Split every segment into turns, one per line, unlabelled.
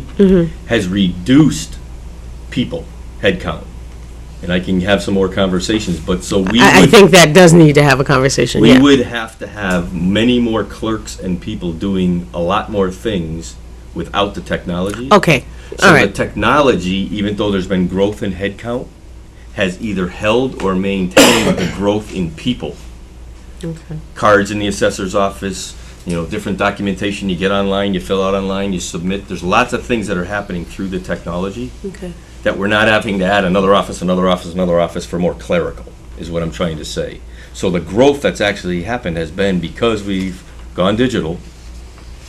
Mm-hmm.
has reduced people, headcount. And I can have some more conversations, but so we
I, I
would,
think that does need to have a conversation,
we
yeah.
would have to have many more clerks and people doing a lot more things without the technology.
Okay, all
So the
right,
technology, even though there's been growth in headcount, has either held or maintained the growth in people. Cards in the assessor's office, you know, different documentation you get online, you fill out online, you submit. There's lots of things that are happening through the technology
okay.
that we're not having to add another office, another office, another office for more clerical, is what I'm trying to say. So the growth that's actually happened has been because we've gone digital,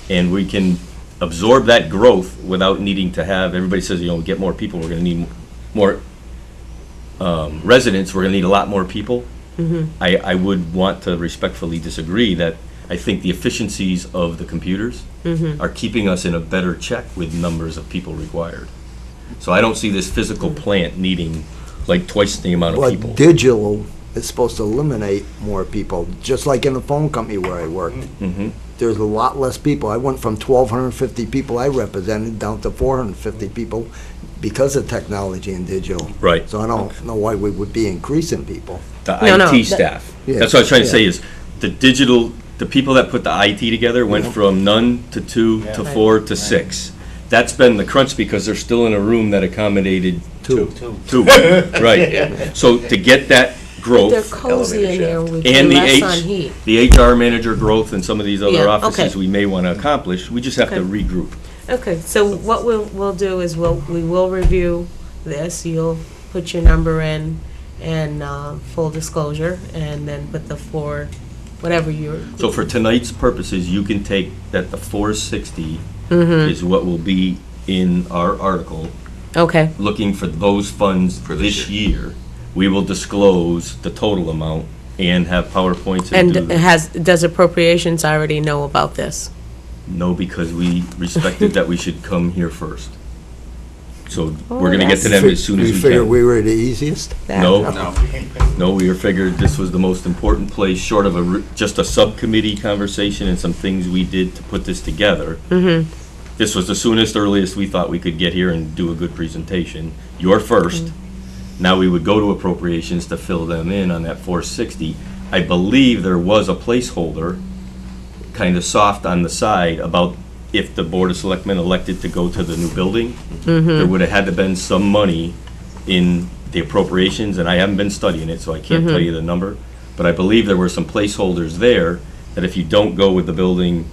and we can absorb that growth without needing to have, everybody says, you know, get more people, we're gonna need more um, residents, we're gonna need a lot more people. I, I would want to respectfully disagree that I think the efficiencies of the computers are keeping us in a better check with numbers of people required. So I don't see this physical plant needing like twice the amount of people.
But digital is supposed to eliminate more people, just like in the phone company where I worked.
Mm-hmm.
There's a lot less people. I went from twelve hundred and fifty people I represented down to four hundred and fifty people because of technology and digital.
Right.
So I don't know why we would be increasing people.
the
No, no,
IT
that-
staff.
Yeah,
That's what I was trying to
yeah.
say is, the digital, the people that put the IT together went from none to two to four to six. That's been the crunch because they're still in a room that accommodated
Two.
two, right? So to get that
They're
growth
cozy in there with
and the
less on heat.
H, the HR manager growth and some of these
Yeah,
other
okay.
offices we may want to accomplish, we just have to
Okay.
regroup.
Okay, so what we'll, we'll do is we'll, we will review this, you'll put your number in and, uh, full disclosure, and then put the four, whatever you're,
So for tonight's purposes, you can take that the four sixty is what will be in our article
Okay,
looking for those funds this year, we will disclose the total amount and have PowerPoints and
and uh,
do, the-
has, does appropriations already know about this?
no, because we respected that we should come here first. So we're
Oh,
gonna get to them as soon as we
figured
can.
we were the easiest?
No, no, we were figured this was the most important place, short of a, re- just a subcommittee conversation and some things we did to put this together. This was the soonest, earliest we thought we could get here and do a good presentation. You're first. Now we would go to appropriations to fill them in on that four sixty. I believe there was a placeholder, kind of soft on the side, about if the Board of Selectmen elected to go to the new building, there would have had to been some money in the appropriations, and I haven't been studying it, so I can't tell you the number. But I believe there were some placeholders there, that if you don't go with the building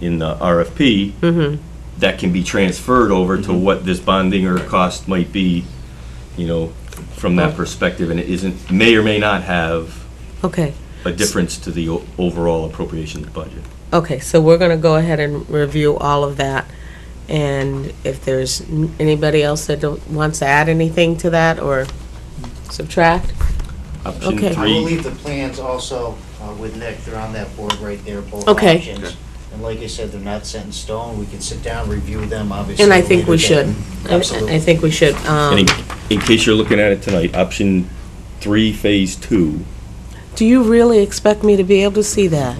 in the RFP, that can be transferred over to what this bonding or cost might be, you know, from that perspective, and it isn't, may or may not have
Okay,
a difference to the o- overall appropriations budget.
okay, so we're gonna go ahead and review all of that. And if there's n- anybody else that don't- wants to add anything to that or subtract?
Option
Okay.
I will
three,
leave the plans also uh, with Nick, they're on that board right there, both
Okay.
options. And like I said, they're not set in stone, we can sit down, review them, obviously.
And I think we
later
should.
then.
I- I- I
Absolutely.
think we should. um,
and in, in case you're looking at it tonight, option three, phase two,
Do you really expect me to be able to see that?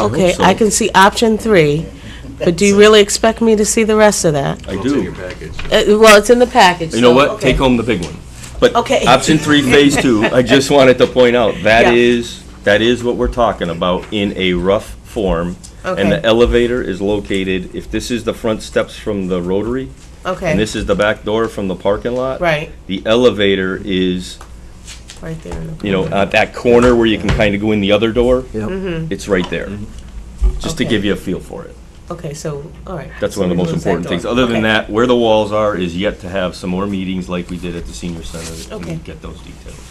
Okay,
so.
I can see option three, but do you really expect me to see the rest of that?
I
It's in your
do.
package.
Uh, Well, it's in the package.
You know
so-
what,
okay.
take home the big one. But
Okay.
option three, phase two, I just wanted to point out, that
Yeah.
is, that is what we're talking about in a rough form. And the
Okay.
elevator is located, if this is the front steps from the rotary, uh, and
Okay,
this is the back door from the parking lot.
right,
The elevator is,
right there. in the-
you know, at that corner where you can kind of go in the other door,
Yep.
it's right there. Just to
Mm-hmm. Okay.
give you a feel for it.
Okay, so, all right.
That's
so
one of the
we
most
lose that
important
door.
things. Other
Okay.
than that, where the walls are is yet to have some more meetings like we did at the senior center
Okay.
and get those details.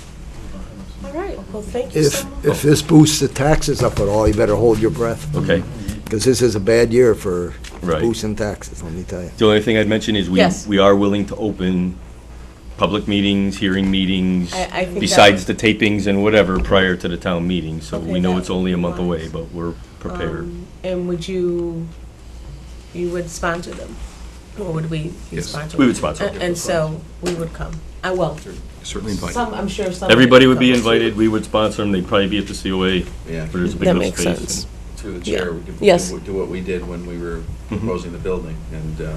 All right, well, thank you so
If,
much.
if this boosts the taxes up at all, you better hold your breath,
Okay?
because this is a bad year for
Right.
boosting taxes, let me tell you.
The only thing I'd mention is we,
Yes.
we are willing to open public meetings, hearing meetings,
I- I think that
besides the tapings and whatever prior to the town meeting. So
Okay,
we know
that
it's only a month
would
away,
be wise.
but we're prepared.
Um, And would you, you would sponsor them? Or would we you
Yes.
sponsor?
We would
them?
sponsor them.
A- And so, we would come. Uh, I will.
Certainly invite you.
Some, I'm sure some.
Everybody would be invited, we would sponsor them, they'd probably be at the COA,
Yeah.
where there's a big
That
enough
makes
space.
sense.
To the
Yeah.
chair, we could
Yes. Mm-hmm.
do do what we did when we were proposing the building and uh,